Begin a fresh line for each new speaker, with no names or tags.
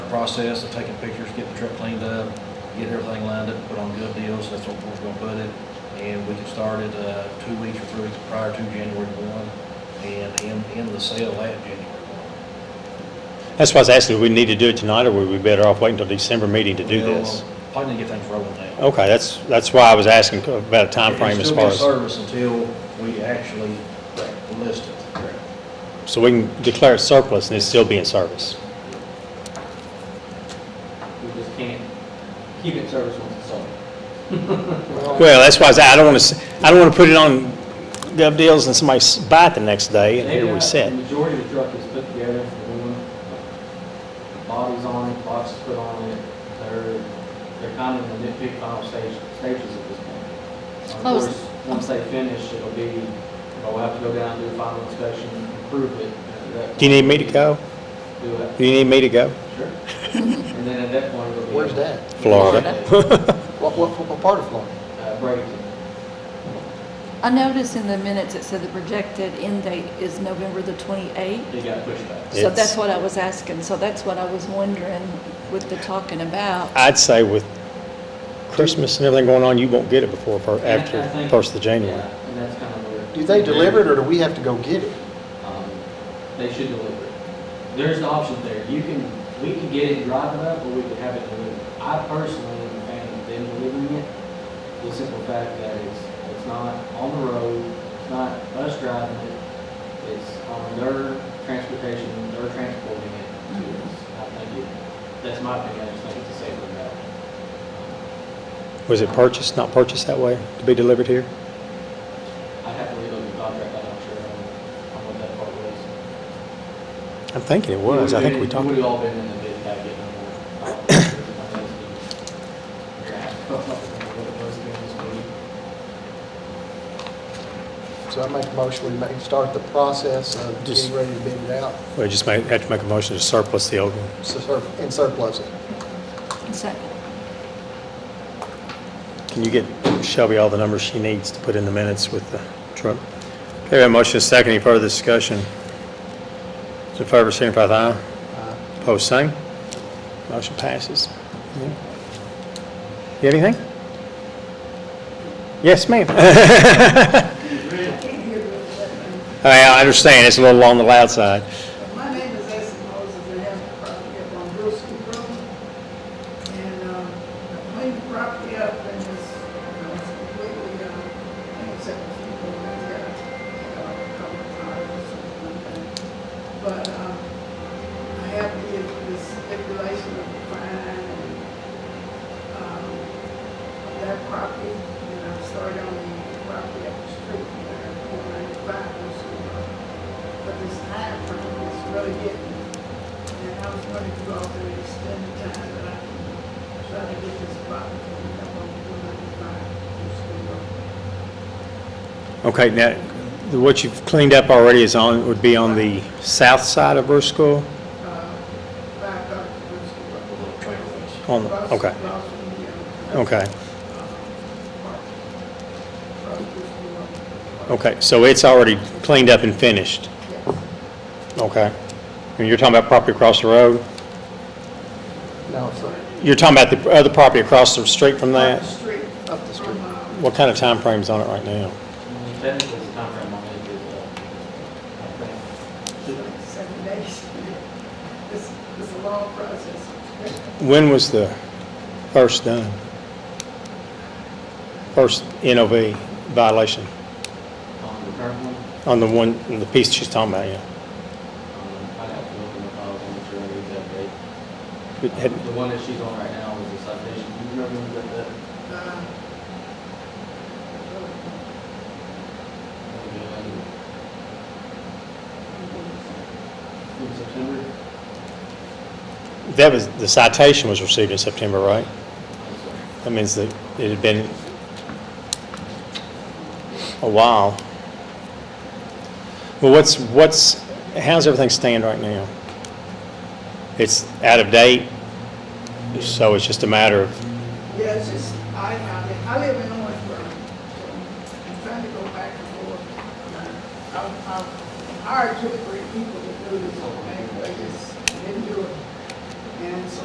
process of taking pictures, getting the truck cleaned up, getting everything lined up, put on good deals, that's what we're gonna put it. And we can start it, uh, two weeks or three weeks prior to January one, and end, end the sale at January one.
That's why I was asking, do we need to do it tonight, or would we be better off waiting until December meeting to do
We'll,
this?
uh, Probably need to get things rolling now.
Okay, that's, that's why I was asking about a time frame as far
It's
as,
still in service until we actually list it.
so we can declare it surplus and it still be in service.
We just can't keep it in service once it's sold.
Well, that's why I said, I don't want to, I don't want to put it on gov deals and somebody s- buy it the next day, and here we
The
sit.
majority of the truck is put together, for one, bodies on it, boxes put on it, they're, they're kind of in the nitpick final stage, stages at this point. Of
I was-
course, once they finish, it'll be, they'll have to go down, do a final inspection, improve it. and at that
Do you need
point,
me to go?
Do it,
Do you need me to go?
sure. And then at that point, it'll be.
Where's that?
Florida.
What, what, what part of Florida?
Uh, Bradenton.
I noticed in the minutes it said the projected end date is November the 28th.
It got pushed back.
So
It's-
that's what I was asking, so that's what I was wondering with the talking about.
I'd say with Christmas and everything going on, you won't get it before, fir-
And I-
after
I think-
first of January.
Yeah, and that's kind of where.
Do they deliver it or do we have to go get it?
Um, They should deliver it. There's the option there. You can, we can get it, drive it up, or we could have it delivered. I personally am a fan of them delivering it. The simple fact that it's, it's not on the road, it's not us driving it. It's on their transportation, they're transporting it to us. I think it, that's my opinion. I just think it's a safer route.
Was it purchased, not purchased that way, to be delivered here?
Um, I'd have to relook the contract. I'm not sure on on what that part was.
I'm thinking it was, I think we talked.
We've all been in the bid packet.
So I make a motion, we make, start the process of
Just-
getting ready to bid it out
We just may have to make a motion to surplus the old one.
sur- and surplus it.
So-
Can you get Shelby all the numbers she needs to put in the minutes with the truck? Okay, we have a motion, a second, any further discussion? Those in favor, signify with aye. Opposed, same. Motion passes. You have anything? Yes, ma'am. All right, I understand, it's a little on the loud side.
My name is Asa Moses, I have a property up on Brewski Road, and, um, I cleaned the property up and it's, you know, it's completely, um, except a few little things that, uh, come apart or something like that. But, um, I have the, the stipulation of fine and, um, of that property, and I've started on the property up the street, there, four ninety-five, uh, Brewski Road but this time frame is really getting, me. and I was going to go out there and spend the time that I can try to get this property cleaned up on four ninety-five.
Okay, now, what you've cleaned up already is on, would be on the south side of Burschel?
Back up to Brewski
The
Road.
little trailer was.
On, the-
Across-
okay,
across from the, uh,
okay.
park. Across Brewski Road.
Okay, so it's already cleaned up and finished,
Yes.
okay? And you're talking about property across the road?
No, sir.
You're talking about the other property across the street from
Up the
that?
street.
Up the street.
From, uh,
What kind of time frame's on it right now?
Technically, the timeframe on it is, uh, I think,
like Seven days. This, this is a long process.
When was the first done? First NOV violation
on the current one,
on the one, the piece she's talking about, yeah?
um, I'd have to look in the files and make sure it is up to date.
It had-
The one that she's on right now is a citation. Do you remember when we got that?
Uh, Uh,
uh, In September?
That was, the citation was received in September, right?
I'm sorry.
That means that it had been a while. Well, what's, what's, how's everything stand right now? It's out of date, so it's just a matter of,
Yeah, it's just, I, I mean, I live in Owensboro, so I'm trying to go back and forth. I, I hired two or three people to do this whole thing, but I just didn't do it. And so